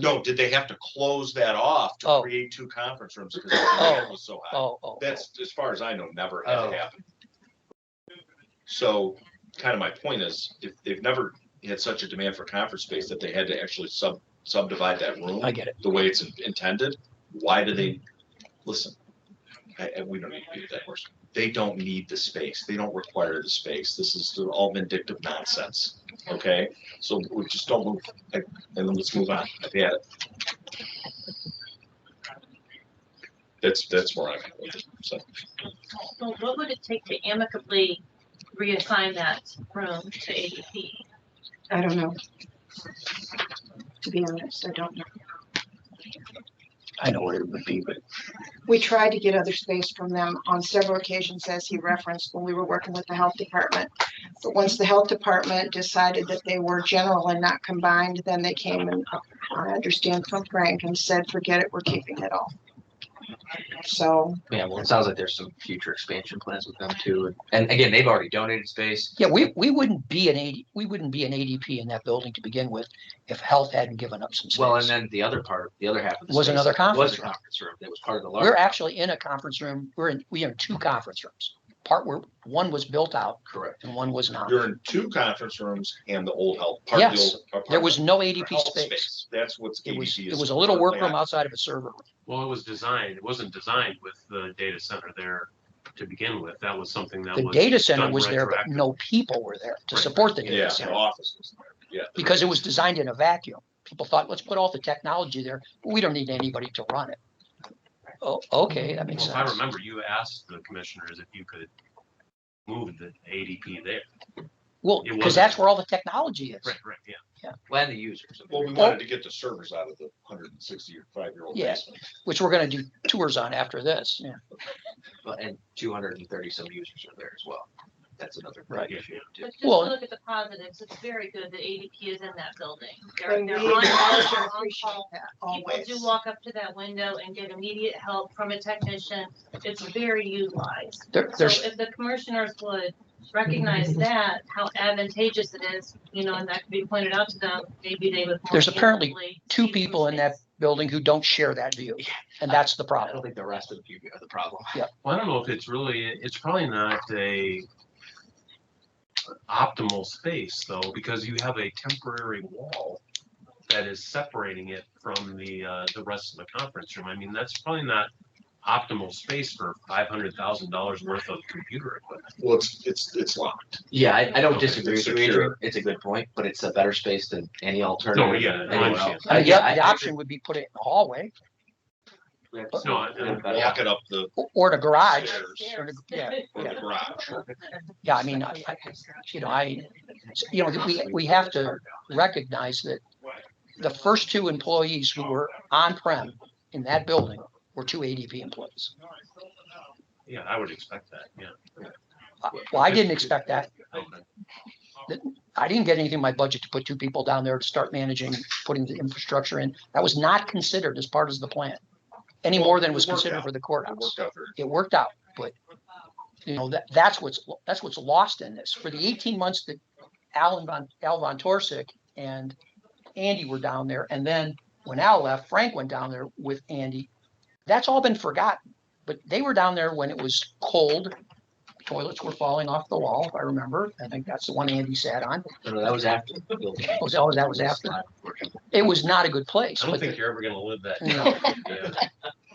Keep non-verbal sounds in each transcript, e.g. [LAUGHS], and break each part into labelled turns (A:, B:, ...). A: No, did they have to close that off to
B: Oh.
A: create two conference rooms because the demand was so high?
B: Oh, oh.
A: That's, as far as I know, never had
C: Oh.
A: happened. So kind of my point is, if they've never had such a demand for conference space that they had to actually sub, subdivide that room
B: oh, I get it.
A: the way it's intended, why do they, listen, I, I- we don't need to beat that horse. They don't need the space. They don't require the space. This is all vindictive nonsense, okay? So we just don't move, and then let's move on. I've had it. That's, that's where I'm at with it, so.
D: Well, what would it take to amicably reassign that room to ADP?
E: I don't know. To be honest, I don't know.
B: I know where it would be, but
E: We tried to get other space from them on several occasions, as he referenced, when we were working with the health department. But once the health department decided that they were general and not combined, then they came and, uh, I understand from Frank, and said, forget it, we're keeping it all. So,
C: Yeah, well, it sounds like there's some future expansion plans with them too. And again, they've already donated space.
B: yeah, we, we wouldn't be an AD, we wouldn't be an ADP in that building to begin with if health hadn't given up some
C: Well, and
B: space.
C: then the other part, the other half of the
B: Was
C: space
B: another conference
C: Was a
B: room.
C: conference room that was part of the large.
B: We're actually in a conference room. We're in, we are in two conference rooms. Part where one was built out
C: Correct.
B: and one was not.
A: You're in two conference rooms and the old health. part of the
B: Yes,
A: old apartment.
B: There was no ADP
A: Health
B: space.
A: That's what's
B: It was,
A: ADP is.
B: it was a little
A: currently
B: workroom
A: on.
B: outside of a server. room.
F: Well, it was designed, it wasn't designed with the data center there to begin with. That was something that
B: The
F: was.
B: data center
F: done
B: was there, but
F: retroactive.
B: no people were there to
F: Right.
B: support the
A: Yeah,
B: data
A: the
B: center.
A: office was there, yeah.
B: because it was designed in a vacuum. People thought, let's put all the technology there. We don't need anybody to run it. Oh, okay, that makes
F: Well, if I
B: sense.
F: remember, you asked the commissioners if you could move the ADP there.
B: Well,
F: it
B: because
F: wasn't-
B: that's where all the technology is.
F: right, yeah.
C: Well, and the users. I mean,
A: Well, we wanted to get the servers out of the hundred and sixty-five year old
B: Oh. Yeah.
A: basement.
B: Which we're gonna do tours on after this, yeah.
C: but- And two hundred and thirty some users are there as well. That's another.
B: Right.
C: big issue too.
D: But just
B: Well-
D: look at the positives. It's very good that ADP is in that building. They're,
E: and we
D: they're
E: acknowledge
D: on
E: and
D: call,
E: appreciate that
D: People
E: always.
D: do walk up to that window and get immediate help from a technician. It's very utilized.
B: There,
D: So
B: there's,
D: if the commissioners would recognize that, how advantageous it is, you know, and that could be pointed out to them, maybe they would. more
B: There's apparently
D: amicably
B: two
D: see some
B: people in that
D: space.
B: building who don't share that view,
C: Yeah.
B: and that's the
C: I don't
B: problem.
C: think the rest of you are the problem.
F: Well, I don't know if it's really, it's probably not a optimal space though, because you have a temporary wall that is separating it from the, uh, the rest of the conference room. I mean, that's probably not optimal space for five hundred thousand dollars worth of computer equipment.
A: Well, it's, it's, it's locked.
C: Yeah, I, I don't
F: Okay,
C: disagree
A: it's
C: with you,
A: secure.
C: Adrian. It's a good point, but it's a better space than any alternative.
F: No, yeah, I
C: anywhere
F: understand.
C: else.
B: I mean, The
C: Yeah, I-
B: the
C: I
B: option would be put it in the hallway,
C: agree.
F: No, I- I-
C: Yeah.
A: Lock it up the,
B: or- or in a garage.
A: Upstairs.
B: or in a-
D: [LAUGHS]
B: Yeah,
A: or the garage.
B: yeah, I mean, I, I- you know, I, you know, we, we have to recognize that the first two employees who were on-prem in that building were two ADP employees.
F: Yeah, I would expect that, yeah.
B: Uh, Well, I didn't expect that.
F: Okay.
B: I didn't get anything in my budget to put two people down there to start managing, putting the infrastructure in. That was not considered as part of the plan, any more than was
A: Well, it worked
B: considered
A: out.
B: for the
A: It
B: courthouse.
A: worked out very.
B: It worked out, but, you know, that, that's what's, that's what's lost in this. For the eighteen months that Alan Von, Al Von Torsick and Andy were down there, and then when Al left, Frank went down there with Andy. That's all been forgotten, but they were down there when it was cold. Toilets were falling off the wall, if I remember. I think that's the one Andy sat on.
C: No, no, that was after. the building.
B: Oh, that was- that was [LAUGHS] after. It was not a good place.
F: I don't
B: but
F: think you're ever gonna live that.
B: No.
F: down. Yeah.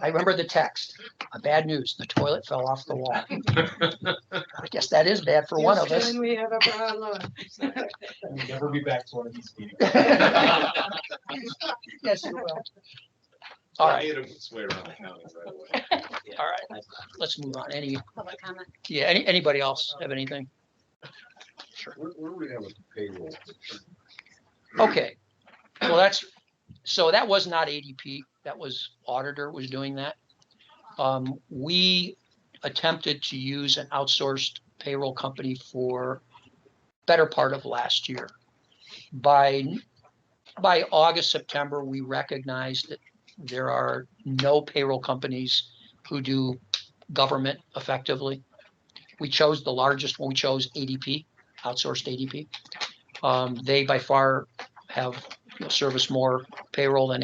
B: I remember the text, Uh, bad news, the toilet fell off the wall.
F: [LAUGHS]
B: I guess that is bad for one of us.
E: Houston, we have a problem.
B: [LAUGHS]
E: [LAUGHS]
G: We'll never be back to one of these meetings.
B: Yes, you will. All right,
A: It made its way around the county right away.
B: all right, let's move on. Any,
D: Public comment.
B: yeah, any, anybody else have anything?
H: Where, where do we have a payroll?
B: Okay, well, that's, so that was not ADP, that was auditor was doing that. Um, we attempted to use an outsourced payroll company for better part of last year. By, by August, September, we recognized that there are no payroll companies who do government effectively. We chose the largest one, we chose ADP, outsourced ADP. Um, they by far have you know, service more payroll than